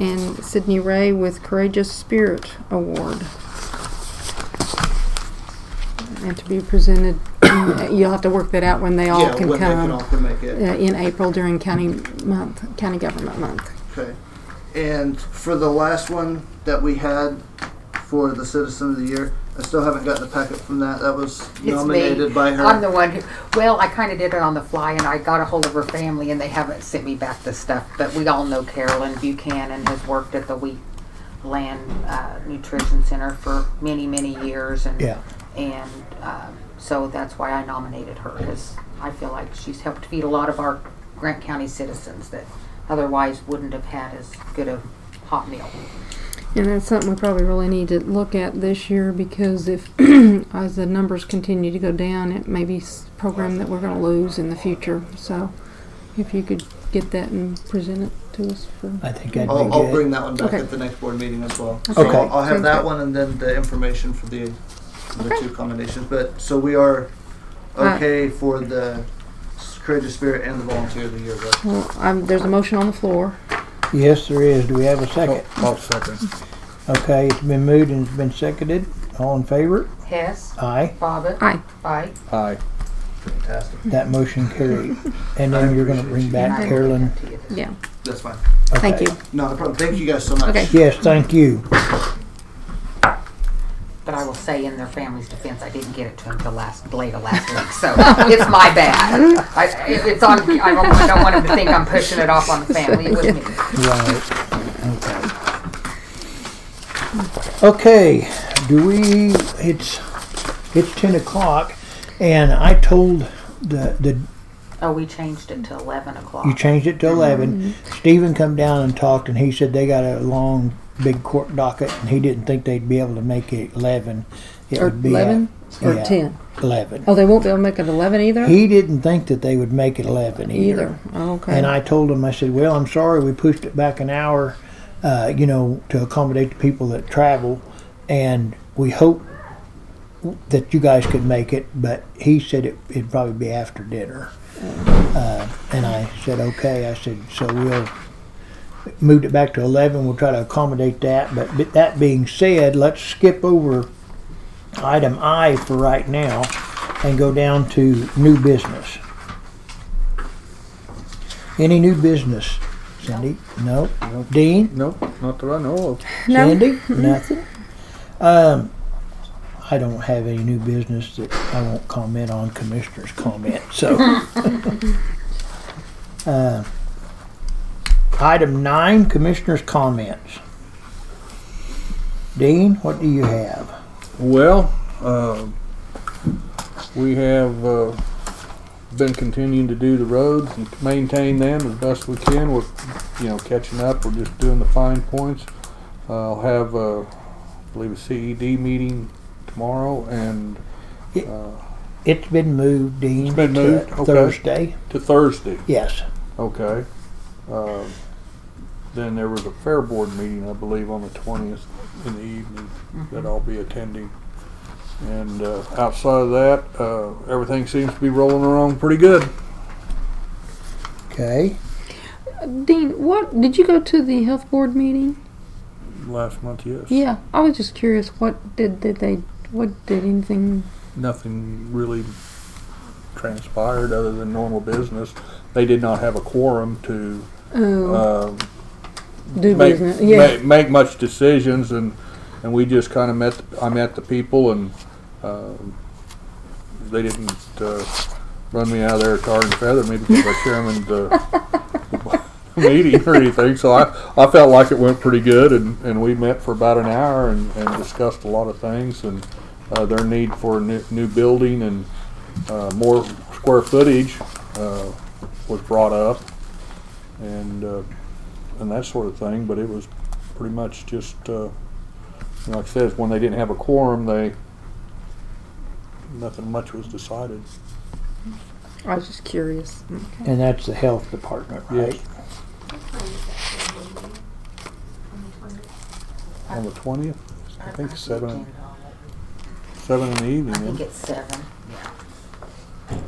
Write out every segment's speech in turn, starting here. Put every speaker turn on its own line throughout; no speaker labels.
and Sydney Ray with Courageous Spirit Award. And to be presented, you'll have to work that out when they all
Yeah,
can
when they can all
come.
can make it.
Uh, in April during county month, county government month.
Okay. And for the last one that we had for the Citizen of the Year, I still haven't gotten a packet from that. That was
me.
nominated by her.
I'm the one who, well, I kind of did it on the fly and I got a hold of her family and they haven't sent me back the stuff. But we all know Carolyn Buchanan has worked at the Wheat Land uh, Nutrition Center for many, many years. And,
Yeah.
And um, so that's why I nominated her because I feel like she's helped feed a lot of our Grant County citizens that otherwise wouldn't have had as good a hot meal.
And that's something we probably really need to look at this year because if, as the numbers continue to go down, it may be s- program that we're gonna lose in the future. So if you could get that and present it to us for,
I think that'd
I'll,
be
I'll
good.
bring that one back
Okay.
at the next board meeting as well. So
Okay.
I'll, I'll have
Sounds
that
good.
one and then the information for the, for the
Okay.
two combinations. But so we are
Alright.
okay for the s- Courageous Spirit and the Volunteer of the Year. Right?
well, um, there's a motion on the floor.
Yes, there is. Do we have a Oh, second?
I'll second.
Okay, it's been moved and it's been seconded. All in favor?
Hess,
Aye.
Bobbit,
Aye.
Bite,
Aye.
Fantastic.
That motion carried. And then you're gonna bring back Carolyn.
Yeah,
That's fine.
thank
Okay.
you.
Not a problem. Thank you guys so much.
Okay.
Yes, thank you.
But I will say in their family's defense, I didn't get it to them till last, later last week, so it's my bad. I, it- it's on, I don't, I don't want them to think I'm pushing it off on the family, it was me.
Right. Okay, do we, it's, it's ten o'clock and I told the, the,
Oh, we changed it to eleven o'clock.
you changed it to eleven.
Mm-hmm.
Stephen come down and talked and he said they got a long, big court docket and he didn't think they'd be able to make it eleven. It
Or
would be at
eleven or
yeah.
ten?
Eleven.
Oh, they won't be able to make it eleven either?
He didn't think that they would make it eleven
Either, okay.
And I told him, I said, well, I'm sorry, we pushed it back an hour, uh, you know, to accommodate the people that travel, and we hope that you guys could make it, but he said it, it'd probably be after dinner. Uh, and I said, okay, I said, so we'll moved it back to 11 we'll try to accommodate that but b- that being said let's skip over item i for right now and go down to new business any new business cindy no dean
No, not that I know
No.
Sandy? Nothing. Um, I don't have any new business that I won't comment on commissioner's comment, so. Uh, Item nine, commissioner's comments. Dean, what do you have?
of. Well, um, we have uh, been continuing to do the roads and maintain them as best we can. We're, you know, catching up. We're just doing the fine points. Uh, I'll have, uh, I believe, a CED meeting tomorrow and
It's been moved, Dean.
It's been
to
moved, okay.
Thursday,
to Thursday.
yes.
Okay. Um, Then there was a fair board meeting, I believe, on the twentieth in the evening that I'll be attending. And uh, outside of that, uh, everything seems to be rolling along pretty good.
Okay,
Dean, what, did you go to the health board meeting?
Last month, yes.
Yeah, I was just curious, what did, did they, what did anything
Nothing really transpired other than normal business. They did not have a quorum to
Uh,
Oh,
um,
do
make,
business. Yeah.
make, make much decisions and and we just kind of met I met the people and um, they didn't uh, run me out of there tar and feather me because I chairmaned uh, the meeting or anything so I, I felt like it went pretty good and, and we met for about an hour and, and discussed a lot of things and uh, their need for a new, new building and uh, more square footage uh, was brought up and uh, and that sort of thing, but it was pretty much just, uh, like I said, when they didn't have a quorum, they, nothing much was decided.
I was just curious.
and that's the health department, right?
Yes. On the twentieth, I think seven, seven in the
I think
evening,
it's seven.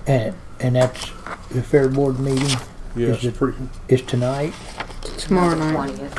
And, and that's the fair board meeting
yeah,
is
it's
it-
pretty,
is tonight?
Tomorrow night.
Twentieth.